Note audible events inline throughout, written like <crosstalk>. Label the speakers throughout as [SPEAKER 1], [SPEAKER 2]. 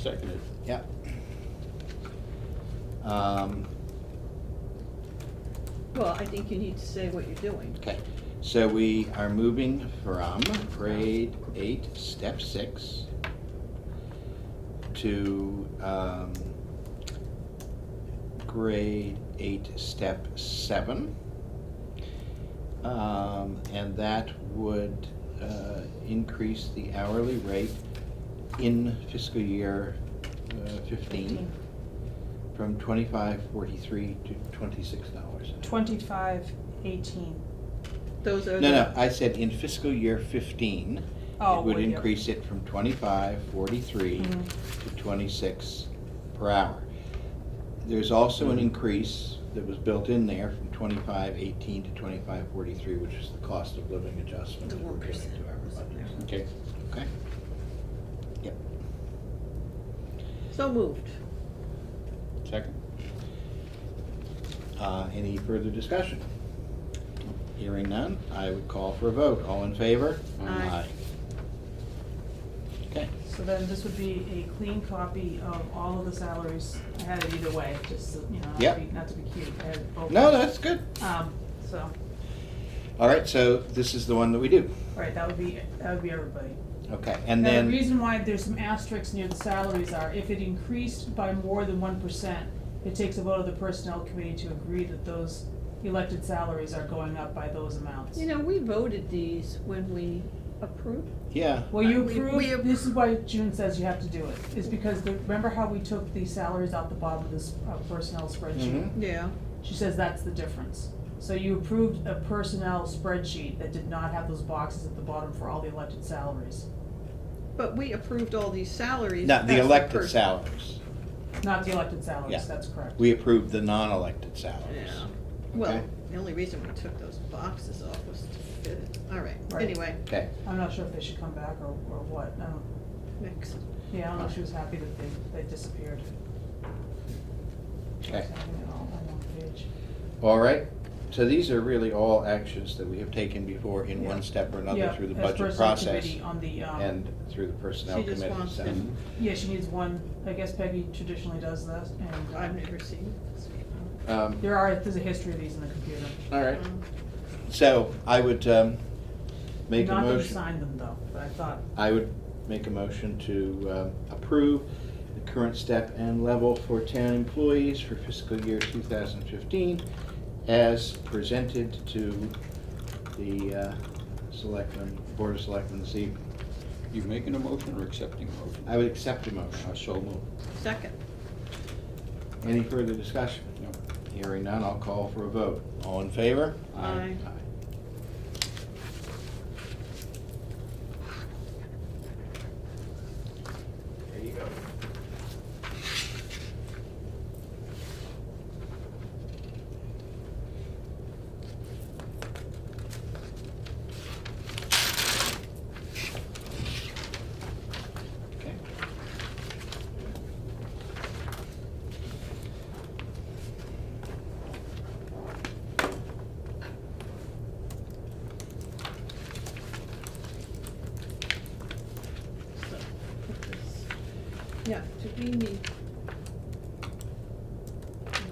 [SPEAKER 1] seconded.
[SPEAKER 2] Yep. Um,
[SPEAKER 3] Well, I think you need to say what you're doing.
[SPEAKER 2] Okay, so we are moving from grade eight, step six, to um, grade eight, step seven. Um, And that would uh, increase the hourly rate in fiscal year uh, fifteen from twenty-five forty-three to twenty-six dollars.
[SPEAKER 4] Twenty-five eighteen.
[SPEAKER 3] Those are
[SPEAKER 2] No, no,
[SPEAKER 3] the,
[SPEAKER 2] I said in fiscal year fifteen,
[SPEAKER 4] Oh,
[SPEAKER 2] it would
[SPEAKER 4] would you?
[SPEAKER 2] increase it from twenty-five, forty-three
[SPEAKER 3] Mm-hmm.
[SPEAKER 2] to twenty-six per hour. There's also
[SPEAKER 3] Mm-hmm.
[SPEAKER 2] an increase that was built in there from twenty-five, eighteen to twenty-five, forty-three, which is the cost of living adjustment
[SPEAKER 3] The
[SPEAKER 2] that we're giving
[SPEAKER 3] 1%
[SPEAKER 2] to
[SPEAKER 3] was in
[SPEAKER 2] everybody,
[SPEAKER 3] there.
[SPEAKER 1] Okay,
[SPEAKER 2] okay? Yep,
[SPEAKER 3] so moved.
[SPEAKER 1] second.
[SPEAKER 2] uh, any further discussion? Hearing none, I would call for a vote, all in favor?
[SPEAKER 3] Aye.
[SPEAKER 2] Aye. Okay.
[SPEAKER 4] So then this would be a clean copy of all of the salaries. I had it either way, just, so, you know, not
[SPEAKER 2] Yep.
[SPEAKER 4] to be, not to be cute, I had both.
[SPEAKER 2] No, that's good.
[SPEAKER 4] Um, so,
[SPEAKER 2] All right, so this is the one that we do.
[SPEAKER 4] right, that would be, that would be everybody.
[SPEAKER 2] Okay, and
[SPEAKER 4] Now,
[SPEAKER 2] then.
[SPEAKER 4] the reason why there's some asterisks near the salaries are if it increased by more than one percent, it takes a vote of the personnel committee to agree that those elected salaries are going up by those amounts.
[SPEAKER 3] You know, we voted these when we approved.
[SPEAKER 2] Yeah,
[SPEAKER 4] Well, you
[SPEAKER 3] We- we
[SPEAKER 4] approved,
[SPEAKER 3] appro-
[SPEAKER 4] this is why June says you have to do it, is because the, remember how we took the salaries out the bottom of this uh, personnel spreadsheet?
[SPEAKER 2] Mhm.
[SPEAKER 3] Yeah.
[SPEAKER 4] She says that's the difference. So you approved a personnel spreadsheet that did not have those boxes at the bottom for all the elected salaries,
[SPEAKER 3] But we approved all these salaries.
[SPEAKER 2] not the
[SPEAKER 3] as a
[SPEAKER 2] elected
[SPEAKER 3] person.
[SPEAKER 2] salaries.
[SPEAKER 4] not the elected
[SPEAKER 2] Yeah.
[SPEAKER 4] salaries, that's correct.
[SPEAKER 2] We approved the non-elected salaries.
[SPEAKER 3] Yeah. Well,
[SPEAKER 2] Okay.
[SPEAKER 3] the only reason we took those boxes off was to fit it. All right,
[SPEAKER 4] Right.
[SPEAKER 3] anyway,
[SPEAKER 2] Okay,
[SPEAKER 4] I'm not sure if they should come back or, or what, I don't,
[SPEAKER 3] next.
[SPEAKER 4] yeah, I don't know if she was happy that they, they disappeared.
[SPEAKER 2] okay.
[SPEAKER 4] Something on- on one page.
[SPEAKER 2] All right, so these are really all actions that we have taken before in one step or another
[SPEAKER 4] Yeah,
[SPEAKER 2] through the
[SPEAKER 4] as
[SPEAKER 2] budget
[SPEAKER 4] personnel
[SPEAKER 2] process
[SPEAKER 4] committee on the, um,
[SPEAKER 2] and through the personnel
[SPEAKER 3] She just
[SPEAKER 2] committee.
[SPEAKER 3] wants
[SPEAKER 2] so-
[SPEAKER 3] them.
[SPEAKER 4] Yeah, she needs one, I guess Peggy traditionally does this, and.
[SPEAKER 3] I've never seen this.
[SPEAKER 2] Um,
[SPEAKER 4] There are, there's a history of these in the computer.
[SPEAKER 2] All right,
[SPEAKER 4] Mm-hmm.
[SPEAKER 3] Um,
[SPEAKER 2] so I would um, make a
[SPEAKER 4] Not that we
[SPEAKER 2] motion.
[SPEAKER 4] signed them though, but I thought,
[SPEAKER 2] I would make a motion to um, approve the current step and level for town employees for fiscal year 2015 as presented to the uh, selectmen, Board of Selectmen this evening.
[SPEAKER 1] You making a motion or accepting a motion?
[SPEAKER 2] I would accept a
[SPEAKER 1] Uh,
[SPEAKER 2] motion.
[SPEAKER 1] So moved.
[SPEAKER 3] Second,
[SPEAKER 2] Any further discussion?
[SPEAKER 1] No.
[SPEAKER 2] Hearing none, I'll call for a vote. All in favor?
[SPEAKER 3] Aye.
[SPEAKER 2] There you go. Okay.
[SPEAKER 3] so, put this. yeah, do we need? Okay.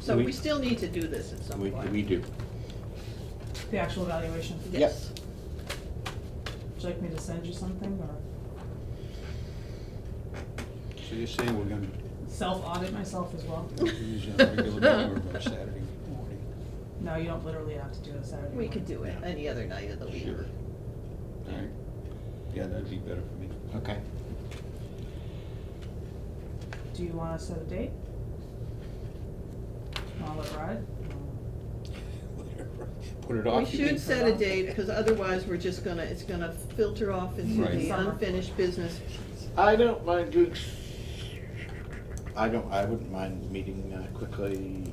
[SPEAKER 3] So
[SPEAKER 2] We-
[SPEAKER 3] we still need to do this at some
[SPEAKER 2] We,
[SPEAKER 3] point.
[SPEAKER 2] we do.
[SPEAKER 4] the actual evaluation, would
[SPEAKER 2] Yep.
[SPEAKER 3] Yes.
[SPEAKER 4] you like me to send you something or
[SPEAKER 1] So you're saying we're <laughs> gonna
[SPEAKER 4] self-audit myself as well?
[SPEAKER 1] use a regular number by Saturday morning?
[SPEAKER 4] No, you don't literally have to do it Saturday
[SPEAKER 3] We
[SPEAKER 4] morning.
[SPEAKER 3] could do it
[SPEAKER 2] Yeah.
[SPEAKER 3] any other night of the week.
[SPEAKER 1] Sure. All right. Yeah, that'd be better for me. <laughs>
[SPEAKER 2] Okay.
[SPEAKER 4] Do you wanna set a date? Wanna let it ride?
[SPEAKER 1] Put it
[SPEAKER 3] We
[SPEAKER 1] off. you mean?
[SPEAKER 3] should set a date, because otherwise we're just gonna, it's gonna filter off into
[SPEAKER 1] Right.
[SPEAKER 3] the
[SPEAKER 4] Summer.
[SPEAKER 3] unfinished business.
[SPEAKER 2] I don't mind doing. I don't, I wouldn't mind meeting uh, quickly,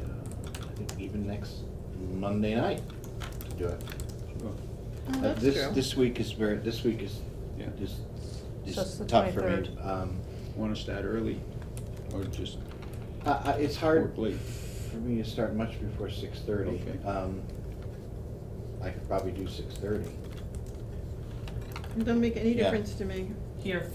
[SPEAKER 2] uh, I think even next Monday night to do it.
[SPEAKER 1] Sure.
[SPEAKER 3] Oh,
[SPEAKER 2] Uh,
[SPEAKER 3] that's
[SPEAKER 2] This,
[SPEAKER 3] true.
[SPEAKER 2] this week is very, this week is,
[SPEAKER 1] Yeah.
[SPEAKER 2] is,
[SPEAKER 4] So it's
[SPEAKER 2] is
[SPEAKER 4] the
[SPEAKER 2] tough for me.
[SPEAKER 4] 23rd.
[SPEAKER 2] Um,
[SPEAKER 1] Wanna start early or just
[SPEAKER 2] I, I, it's hard
[SPEAKER 1] work late?
[SPEAKER 2] for me to start much before six thirty.
[SPEAKER 1] Okay.
[SPEAKER 2] Um, I could probably do six thirty.
[SPEAKER 3] It Don't make any
[SPEAKER 2] Yeah.
[SPEAKER 3] difference to me.
[SPEAKER 4] Here,